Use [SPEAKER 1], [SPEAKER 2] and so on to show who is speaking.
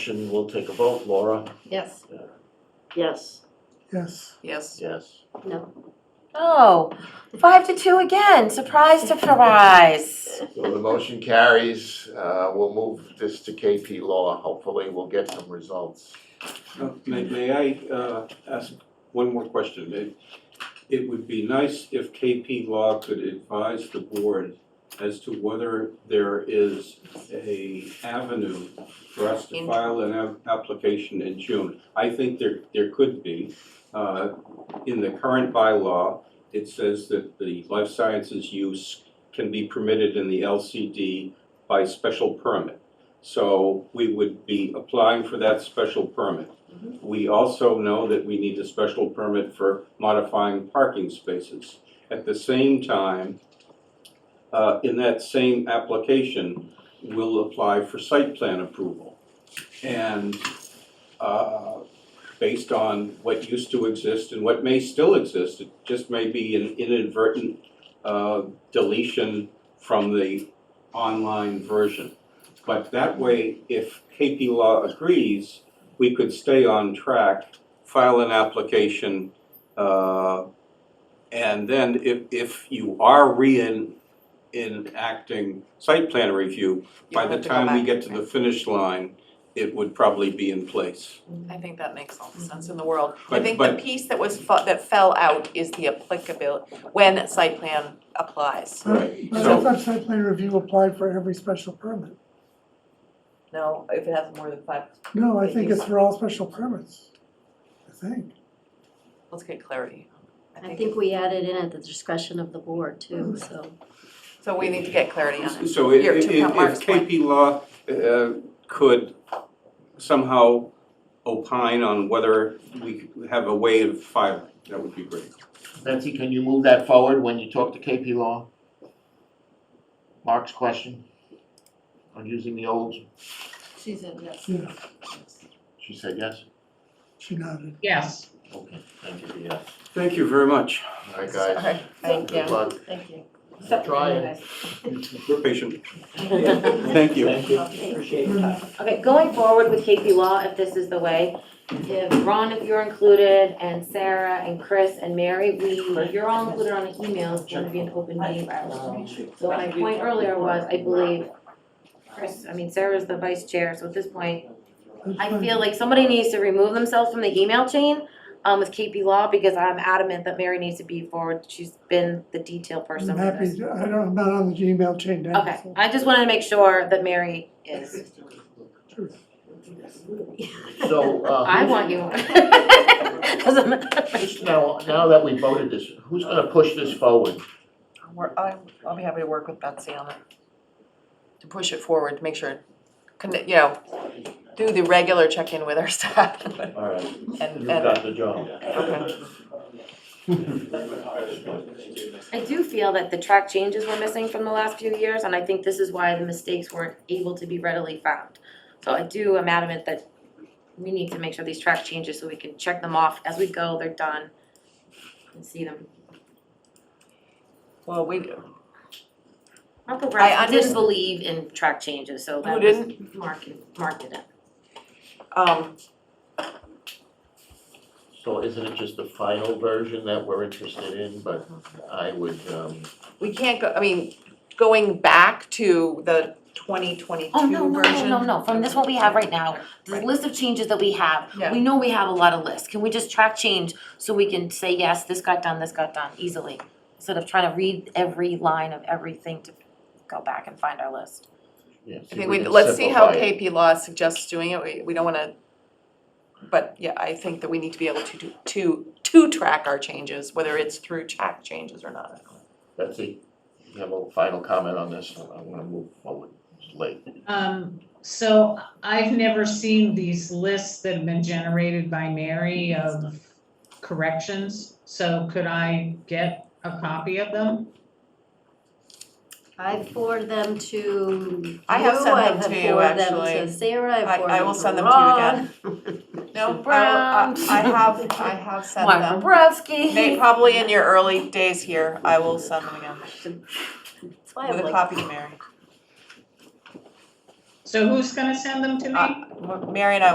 [SPEAKER 1] Motion, we'll take a vote, Laura?
[SPEAKER 2] Yes.
[SPEAKER 3] Yes.
[SPEAKER 4] Yes,
[SPEAKER 5] Yes.
[SPEAKER 1] Yes.
[SPEAKER 2] No.
[SPEAKER 6] Oh, five to two again, surprise, surprise.
[SPEAKER 1] So the motion carries, uh, we'll move this to KP Law, hopefully we'll get some results.
[SPEAKER 7] Uh, May, may I, uh, ask one more question? It, it would be nice if KP Law could advise the board as to whether there is a avenue for us to
[SPEAKER 5] In-
[SPEAKER 7] file an ap- application in June. I think there, there could be. Uh, in the current bylaw, it says that the life sciences use can be permitted in the LCD by special permit. So we would be applying for that special permit. We also know that we need a special permit for modifying parking spaces. At the same time, uh, in that same application, we'll apply for site plan approval. And, uh, based on what used to exist and what may still exist, it just may be an inadvertent, uh, deletion from the online version. But that way, if KP Law agrees, we could stay on track, file an application, uh, and then if, if you are re-in, enacting site plan review, by
[SPEAKER 5] You'll
[SPEAKER 7] the
[SPEAKER 5] have to go
[SPEAKER 7] time we
[SPEAKER 5] back.
[SPEAKER 7] get to the finish line, it would probably be in place.
[SPEAKER 5] I think that makes all the sense in the world. I
[SPEAKER 7] Mm-hmm. But-
[SPEAKER 5] think the
[SPEAKER 7] but-
[SPEAKER 5] piece that was, fu- that fell out is the applicability, when site plan applies.
[SPEAKER 4] but
[SPEAKER 7] Right,
[SPEAKER 4] but I
[SPEAKER 7] so-
[SPEAKER 4] thought site plan review applied for every special permit.
[SPEAKER 5] No, if it has more than five,
[SPEAKER 4] No, I think it's for all special permits, I think.
[SPEAKER 5] let's get clarity.
[SPEAKER 2] I think we added in at the discretion of the board
[SPEAKER 4] Mm-hmm.
[SPEAKER 2] too, so.
[SPEAKER 5] So we need to get clarity on it.
[SPEAKER 7] So i- i-
[SPEAKER 5] Here,
[SPEAKER 7] if,
[SPEAKER 5] to Count Mark's
[SPEAKER 7] if KP Law, uh, could somehow opine on whether we have a way of filing, that would be great.
[SPEAKER 1] Betsy, can you move that forward when you talk to KP Law? Mark's question on using the old,
[SPEAKER 2] She said yes.
[SPEAKER 4] Yeah,
[SPEAKER 1] she said yes?
[SPEAKER 4] she nodded.
[SPEAKER 3] Yes.
[SPEAKER 1] Okay, thank you, for yes.
[SPEAKER 7] Thank you very much.
[SPEAKER 1] All right, guys.
[SPEAKER 5] Sorry. Thank
[SPEAKER 1] Good
[SPEAKER 5] you.
[SPEAKER 1] luck.
[SPEAKER 2] Thank you.
[SPEAKER 1] Try it.
[SPEAKER 7] We're patient. Thank you.
[SPEAKER 1] Thank you.
[SPEAKER 3] Appreciate
[SPEAKER 8] Okay, going forward with KP Law, if this is the way, if Ron, if you're included, and Sarah, and Chris, and Mary, we, you're all included on the email, it's gonna be an open meeting. So my point earlier was, I believe, Chris, I mean, Sarah's the vice chair, so at this point,
[SPEAKER 4] That's
[SPEAKER 8] I
[SPEAKER 4] fine.
[SPEAKER 8] feel like somebody needs to remove themselves from the email chain, um, with KP Law, because I'm adamant that Mary needs to be forward, she's been the detail
[SPEAKER 4] I'm
[SPEAKER 8] person for
[SPEAKER 4] happy,
[SPEAKER 8] this.
[SPEAKER 4] to- I don't, I'm not on the Gmail chain now,
[SPEAKER 8] Okay,
[SPEAKER 4] so-
[SPEAKER 8] I just wanted to make sure that Mary is,
[SPEAKER 4] Sure.
[SPEAKER 1] So, uh,
[SPEAKER 8] I want you. Doesn't matter.
[SPEAKER 1] Just now, now that we voted this, who's gonna push this forward?
[SPEAKER 5] I'll work- I'm- I'll be happy to work with Betsy on it. To push it forward, to make sure, con- you know, do the regular check-in with our staff and,
[SPEAKER 1] All right, you've
[SPEAKER 5] and,
[SPEAKER 1] got the job.
[SPEAKER 5] okay.
[SPEAKER 8] I do feel that the track changes were missing from the last few years, and I think this is why the mistakes weren't able to be readily found. So I do, am adamant that we need to make sure these track changes, so we can check them off as we go, they're done, and see them.
[SPEAKER 5] Well, we,
[SPEAKER 8] Mark
[SPEAKER 5] I
[SPEAKER 8] Bobrowski
[SPEAKER 5] underst-
[SPEAKER 8] didn't believe in track changes, so
[SPEAKER 5] Who
[SPEAKER 8] that was, Mark, Mark did it.
[SPEAKER 5] um,
[SPEAKER 1] So isn't it just the final version that we're interested in, but I would, um,
[SPEAKER 5] we can't go, I mean, going back to the twenty twenty-two
[SPEAKER 8] Oh,
[SPEAKER 5] version.
[SPEAKER 8] no, no, no, no, no, from this what we have right now, the
[SPEAKER 5] Right.
[SPEAKER 8] list of changes that we have,
[SPEAKER 5] Yeah.
[SPEAKER 8] we know we have a lot of lists, can we just track change so we can say, yes, this got done, this got done easily? Instead of trying to read every line of everything to go back and find our list.
[SPEAKER 1] yeah, see
[SPEAKER 5] I
[SPEAKER 1] if
[SPEAKER 5] think we,
[SPEAKER 1] can
[SPEAKER 5] let's see how
[SPEAKER 1] simplify it.
[SPEAKER 5] KP Law suggests doing it, we, we don't wanna, but yeah, I think that we need to be able to do, to, to track our changes, whether it's through track changes or not.
[SPEAKER 1] Betsy, you have a final comment on this, I wanna move forward, it's late.
[SPEAKER 3] Um, so I've never seen these lists that have been generated by Mary of corrections. So could I get a copy of them?
[SPEAKER 2] I forward them to
[SPEAKER 5] I have
[SPEAKER 2] you,
[SPEAKER 5] sent
[SPEAKER 2] I
[SPEAKER 5] them
[SPEAKER 2] have
[SPEAKER 5] to you,
[SPEAKER 2] forwarded them
[SPEAKER 5] actually.
[SPEAKER 2] to Sarah, I
[SPEAKER 5] I-
[SPEAKER 2] forwarded
[SPEAKER 5] I
[SPEAKER 2] them
[SPEAKER 5] will
[SPEAKER 2] to
[SPEAKER 5] send them to you again. No, I,
[SPEAKER 8] Brown.
[SPEAKER 5] I I have, I have sent
[SPEAKER 8] Mark
[SPEAKER 5] them, They-
[SPEAKER 8] Bobrowski.
[SPEAKER 5] probably in your early days here, I will send them again,
[SPEAKER 2] That's why I'm
[SPEAKER 5] with a
[SPEAKER 2] like,
[SPEAKER 5] copy to Mary.
[SPEAKER 3] So who's gonna send them to me?
[SPEAKER 5] Uh, Mary and I